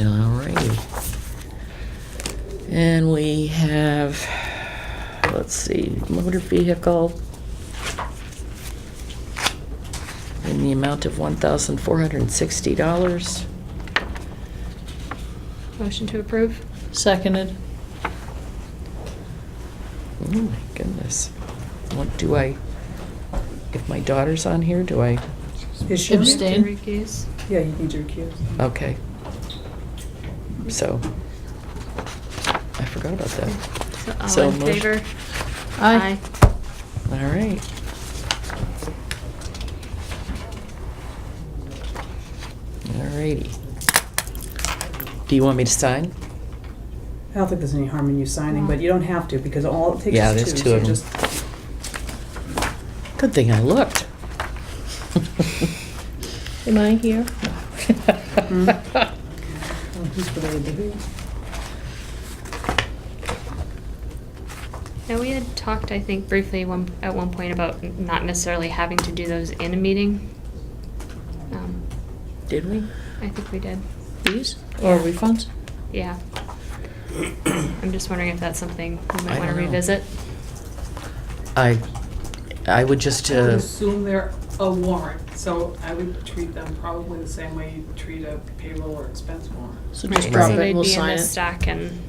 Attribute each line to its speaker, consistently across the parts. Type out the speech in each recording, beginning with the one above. Speaker 1: All righty. And we have, let's see, motor vehicle in the amount of $1,460.
Speaker 2: Motion to approve?
Speaker 3: Seconded.
Speaker 1: Oh my goodness. What do I, if my daughter's on here, do I,
Speaker 4: Is she on it?
Speaker 3: Abstain.
Speaker 2: Recuse?
Speaker 4: Yeah, you need to recuse.
Speaker 1: okay. So, I forgot about that.
Speaker 2: So
Speaker 1: So
Speaker 2: all in
Speaker 1: motion-
Speaker 2: favor?
Speaker 3: Aye.
Speaker 1: All right. All righty. Do you want me to sign?
Speaker 4: I don't think there's any harm in you signing, but you don't have to, because all it takes
Speaker 1: Yeah,
Speaker 4: is two.
Speaker 1: there's two
Speaker 4: so
Speaker 1: of 'em.
Speaker 4: just-
Speaker 1: Good thing I looked.
Speaker 3: Am I here?
Speaker 4: oh, Who's related to who?
Speaker 2: Now, we had talked, I think, briefly one, at one point about n- not necessarily having to do those in a meeting. Um,
Speaker 1: Did we?
Speaker 2: I think we did,
Speaker 3: These? Or refunds?
Speaker 2: yeah. I'm just wondering if that's something we
Speaker 1: I
Speaker 2: might want
Speaker 1: don't
Speaker 2: to
Speaker 1: know.
Speaker 2: revisit.
Speaker 1: I, I would just,
Speaker 5: I would
Speaker 1: uh,
Speaker 5: assume they're a warrant, so I would treat them probably the same way you treat a payroll or expense warrant.
Speaker 3: So just
Speaker 2: Right,
Speaker 3: drop
Speaker 2: so
Speaker 3: it,
Speaker 2: they'd
Speaker 3: we'll
Speaker 2: be in
Speaker 3: sign
Speaker 2: the
Speaker 3: it.
Speaker 2: Stack and,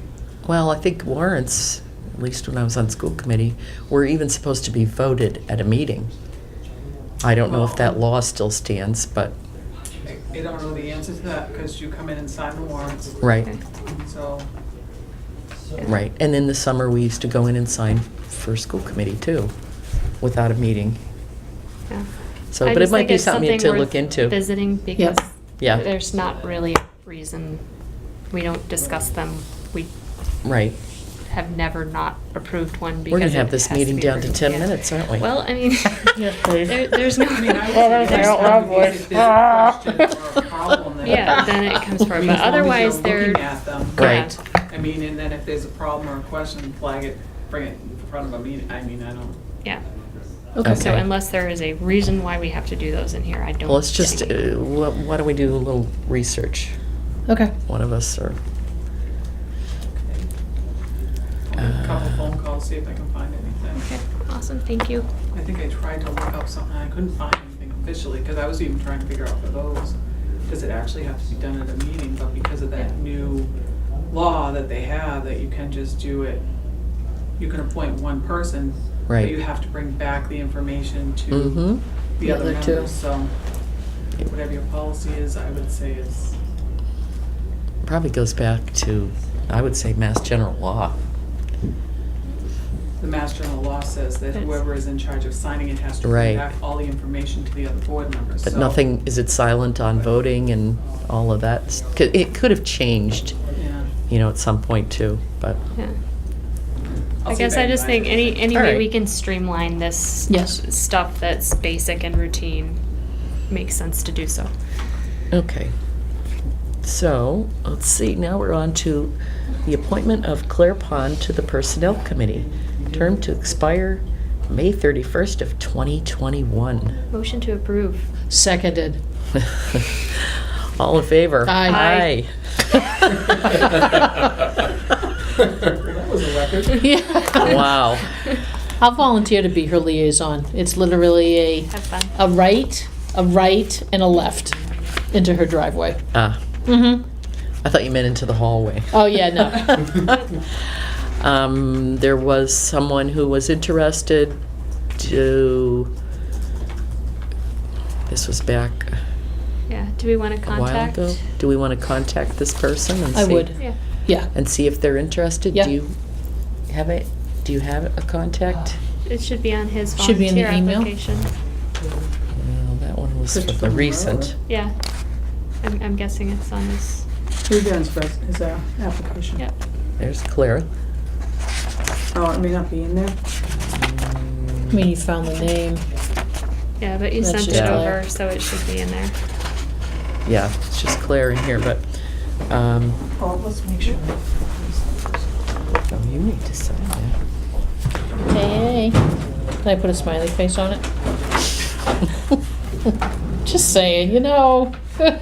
Speaker 1: well, I think warrants, at least when I was on school committee, were even supposed to be voted at a meeting. I don't know if that law still stands, but,
Speaker 5: I- I don't know the answer to that, because you come in and sign the warrants,
Speaker 1: right,
Speaker 2: okay.
Speaker 5: so.
Speaker 1: right. And in the summer, we used to go in and sign for school committee too, without a meeting.
Speaker 2: Yeah.
Speaker 1: So,
Speaker 2: I
Speaker 1: but it
Speaker 2: just
Speaker 1: might
Speaker 2: think
Speaker 1: be
Speaker 2: it's
Speaker 1: something to
Speaker 2: worth
Speaker 1: look into.
Speaker 2: Visiting because
Speaker 1: Yeah.
Speaker 2: there's not really a reason, we don't discuss them. We
Speaker 1: Right.
Speaker 2: have never not approved one because
Speaker 1: We're gonna have
Speaker 2: it
Speaker 1: this
Speaker 2: has to
Speaker 1: meeting
Speaker 2: be
Speaker 1: down to
Speaker 2: approved.
Speaker 1: ten
Speaker 2: Yeah.
Speaker 1: minutes, aren't we?
Speaker 2: Well, I mean,
Speaker 3: Yeah, please.
Speaker 2: there, there's no.
Speaker 5: I mean, I would
Speaker 3: Well, that's
Speaker 5: say there's
Speaker 3: our loud
Speaker 5: probably
Speaker 3: voice.
Speaker 5: if there's a question or a problem there.
Speaker 2: Yeah, then it comes
Speaker 5: I
Speaker 2: forward,
Speaker 5: mean,
Speaker 2: but
Speaker 5: as long as you're
Speaker 2: otherwise they're.
Speaker 5: Looking at them.
Speaker 2: yeah.
Speaker 1: Right.
Speaker 5: I mean, and then if there's a problem or a question, flag it, bring it in front of a meeting, I mean, I don't.
Speaker 2: Yeah,
Speaker 3: Okay.
Speaker 2: so
Speaker 1: Okay.
Speaker 2: unless there is a reason why we have to do those in here, I don't.
Speaker 1: Well, let's just, uh,
Speaker 2: see.
Speaker 1: wh- why don't we do a little research,
Speaker 3: Okay.
Speaker 1: one of us, or,
Speaker 5: I'll make A
Speaker 1: Uh,
Speaker 5: couple phone calls, see if I can find anything.
Speaker 2: Okay, awesome, thank you.
Speaker 5: I think I tried to look up something, I couldn't find anything officially, because I was even trying to figure out for those, does it actually have to be done at a meeting, but because of that new law that they have, that you can just do it, you can appoint one person, but
Speaker 1: Right.
Speaker 5: you have to bring back the information to
Speaker 1: mm-hmm,
Speaker 5: the other
Speaker 3: The other two.
Speaker 5: members, so whatever your policy is, I would say is,
Speaker 1: probably goes back to, I would say, Mass General Law.
Speaker 5: the Mass General law says that
Speaker 2: That's-
Speaker 5: whoever is in charge of signing it has to
Speaker 1: Right.
Speaker 5: bring back all the information to the other board members,
Speaker 1: But
Speaker 5: so-
Speaker 1: nothing, is it silent on voting and all of that? S- c- It could have changed,
Speaker 5: Yeah.
Speaker 1: you know, at some point too, but,
Speaker 2: Yeah.
Speaker 5: I'll
Speaker 2: I
Speaker 5: see if
Speaker 2: guess I
Speaker 5: can
Speaker 2: just
Speaker 5: find
Speaker 2: think any,
Speaker 5: anything.
Speaker 2: any
Speaker 1: All
Speaker 2: way
Speaker 1: right.
Speaker 2: we can streamline this.
Speaker 3: Yes.
Speaker 2: Stuff that's basic and routine makes sense to do so.
Speaker 1: okay. So, let's see, now we're on to the appointment of Claire Pond to the Personnel Committee, term to expire May 31st of 2021.
Speaker 2: Motion to approve.
Speaker 3: Seconded.
Speaker 1: All in favor?
Speaker 3: Aye.
Speaker 1: Aye.
Speaker 5: That was a record.
Speaker 1: Wow.
Speaker 3: I'll volunteer to be her liaison. It's literally a,
Speaker 2: Have fun.
Speaker 3: a right, a right, and a left into her driveway.
Speaker 1: Ah,
Speaker 3: Mm-hmm.
Speaker 1: I thought you meant into the hallway.
Speaker 3: Oh, yeah, no.
Speaker 1: Um, there was someone who was interested to, this was back
Speaker 2: Yeah, do we want to
Speaker 1: a while
Speaker 2: contact?
Speaker 1: ago. Do we want to contact this person and see?
Speaker 3: I would.
Speaker 2: Yeah.
Speaker 3: Yeah.
Speaker 1: And see if they're interested?
Speaker 3: Yeah.
Speaker 1: Do you have it, do you have a contact?
Speaker 2: It should be on his
Speaker 3: Should be in the
Speaker 2: volunteer
Speaker 3: email.
Speaker 2: application.
Speaker 1: Well, that one was for
Speaker 5: Christopher
Speaker 1: the
Speaker 5: Morrow.
Speaker 1: recent.
Speaker 2: Yeah. I'm, I'm guessing it's on his,
Speaker 4: Who's there is pres- is our uh, application?
Speaker 2: yep.
Speaker 1: There's Claire.
Speaker 4: Oh, it may not be in there.
Speaker 3: I mean, you found the name.
Speaker 2: Yeah, but you
Speaker 3: That's
Speaker 2: sent
Speaker 3: just
Speaker 2: it
Speaker 3: all.
Speaker 2: over, so it should be in there.
Speaker 1: Yeah, it's just Claire in here, but, um,
Speaker 4: Oh, let's make sure.
Speaker 1: oh, you need to sign that.
Speaker 3: Hey, hey. Can I put a smiley face on it? Just saying, you know.